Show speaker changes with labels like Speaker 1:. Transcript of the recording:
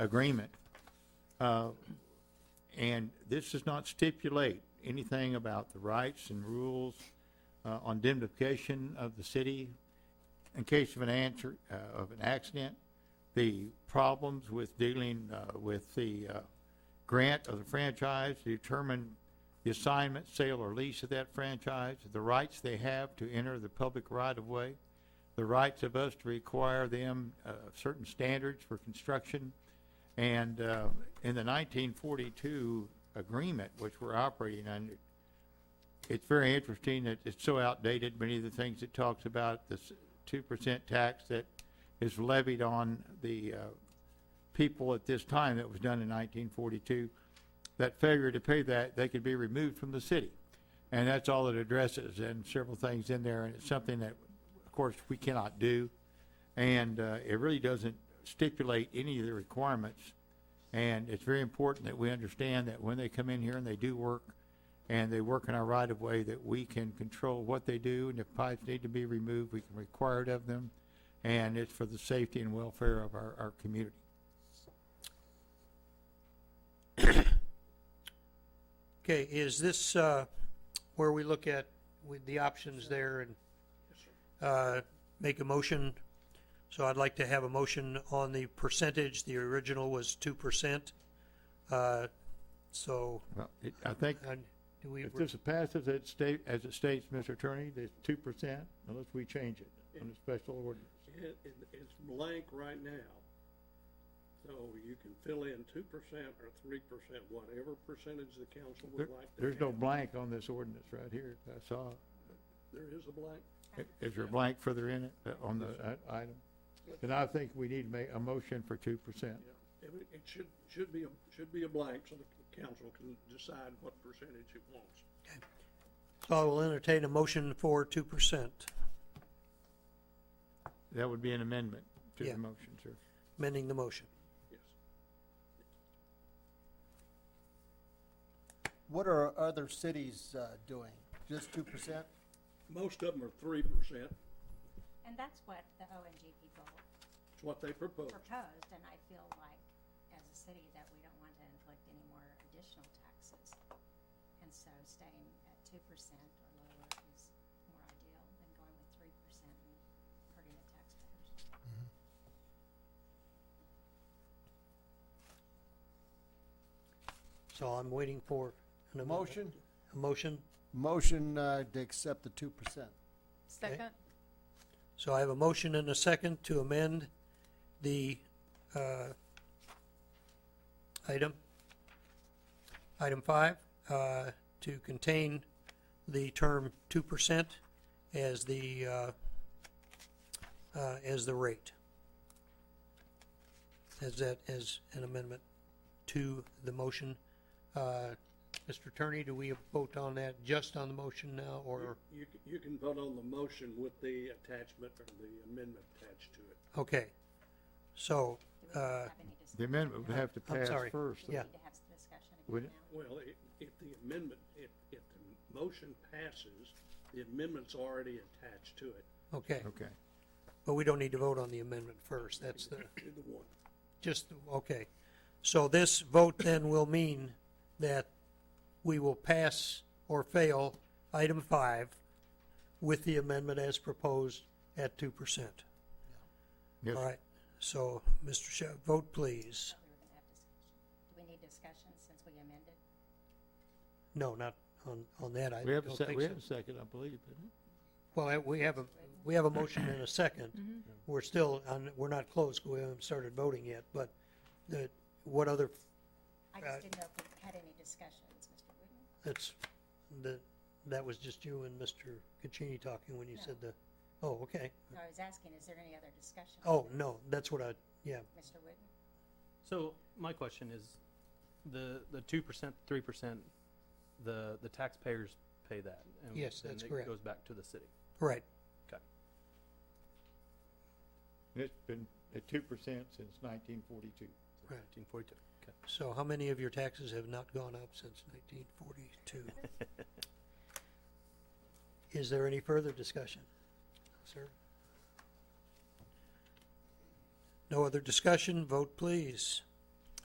Speaker 1: agreement. Uh, And this does not stipulate anything about the rights and rules uh, on indemnification of the city in case of an answer, uh, of an accident, the problems with dealing uh, with the uh, grant of the franchise, to determine the assignment, sale, or lease of that franchise, the rights they have to enter the public right-of-way, the rights of us to require them uh, certain standards for construction. And uh, in the 1942 agreement, which we're operating under, it's very interesting that it's so outdated. Many of the things it talks about, this 2% tax that is levied on the uh, people at this time, that was done in 1942, that failure to pay that, they could be removed from the city. And that's all it addresses, and several things in there, and it's something that, of course, we cannot do. And uh, it really doesn't stipulate any of the requirements. And it's very important that we understand that when they come in here and they do work, and they work in our right-of-way, that we can control what they do, and if pipes need to be removed, we can require it of them. And it's for the safety and welfare of our, our community.
Speaker 2: Okay, is this, uh, where we look at with the options there and, uh, make a motion? So I'd like to have a motion on the percentage, the original was two percent. Uh, so,
Speaker 1: Well, it- I think
Speaker 2: uh, do we,
Speaker 1: if this passes, it state, as it states, Mr. Attorney, there's two percent unless we change it on a special ordinance.
Speaker 3: It, it, it's blank right now. So you can fill in two percent or three percent, whatever percentage the council
Speaker 1: There-
Speaker 3: would like to
Speaker 1: There's no
Speaker 3: have.
Speaker 1: blank on this ordinance right here. I saw,
Speaker 3: There is a blank.
Speaker 1: i- is there a blank further in it, uh, on the uh, item? Then I think we need to make a motion for two percent.
Speaker 3: It, would- it should, should be, a should be a blank so the council can decide what percentage it wants.
Speaker 2: so I will entertain a motion for two percent,
Speaker 1: That would be an amendment to
Speaker 2: Yeah.
Speaker 1: the motion, sir.
Speaker 2: amending the motion.
Speaker 3: Yes.
Speaker 4: What are other cities uh, doing? Just two percent?
Speaker 3: Most of them are three percent.
Speaker 5: And that's what the ONG people
Speaker 3: It's what they propose.
Speaker 5: proposed, and I feel like, as a city, that we don't want to inflict any more additional taxes. And so staying at two percent or lower is more ideal than going with three percent and hurting the taxpayers.
Speaker 2: So I'm waiting for an amendment.
Speaker 4: Motion,
Speaker 2: A motion,
Speaker 4: motion uh, to accept the two percent.
Speaker 6: Second,
Speaker 2: so I have a motion and a second to amend the, uh, item, item five, uh, to contain the term two percent as the, uh, uh, as the rate. As that, as an amendment to the motion. Uh, Mr. Attorney, do we vote on that just on the motion now, or?
Speaker 3: You, c- you can vote on the motion with the attachment or the amendment attached to it.
Speaker 2: Okay, so,
Speaker 5: Do we
Speaker 2: uh,
Speaker 5: have any
Speaker 1: The
Speaker 5: discussion?
Speaker 1: amendment would have to
Speaker 2: I'm
Speaker 1: pass
Speaker 2: sorry.
Speaker 1: first.
Speaker 2: Yeah.
Speaker 5: Need to have this discussion
Speaker 1: Would-
Speaker 5: again now.
Speaker 3: Well, if, if the amendment, if, if the motion passes, the amendment's already attached to it,
Speaker 2: okay,
Speaker 1: Okay.
Speaker 2: but we don't need to vote on the amendment first, that's the,
Speaker 3: to the one.
Speaker 2: just, okay. So this vote then will mean that we will pass or fail item five with the amendment as proposed at two percent.
Speaker 1: Yes,
Speaker 2: All right, so, Mr. Shep, vote please.
Speaker 5: We were gonna have discussion. Do we need discussion since we amended?
Speaker 2: No, not on, on that, I
Speaker 1: we
Speaker 2: don't
Speaker 1: have a
Speaker 2: think
Speaker 1: sec, we
Speaker 2: so.
Speaker 1: have a second, I believe, isn't it?
Speaker 2: Well, I- we have a, we have a motion and a second. We're still, on- we're not closed, we haven't started voting yet, but the, what other,
Speaker 5: I
Speaker 2: Uh,
Speaker 5: just didn't know if we had any discussions, Mr. Wooden.
Speaker 2: that's, the, that was just you and Mr. Caccini talking when you said the, oh, okay.
Speaker 5: No, I was asking, is there any other discussion?
Speaker 2: Oh, no, that's what I, yeah,
Speaker 5: Mr. Wooden?
Speaker 7: So my question is, the, the two percent, three percent, the, the taxpayers pay that? and
Speaker 2: Yes,
Speaker 7: then
Speaker 2: that's
Speaker 7: it
Speaker 2: correct.
Speaker 7: Goes back to the city.
Speaker 2: right,
Speaker 7: Okay.
Speaker 1: And It's been at two percent since nineteen forty-two.
Speaker 2: Right.
Speaker 7: Nineteen forty-two, okay.
Speaker 2: so how many of your taxes have not gone up since nineteen forty-two? Is there any further discussion, sir? No other discussion, vote please.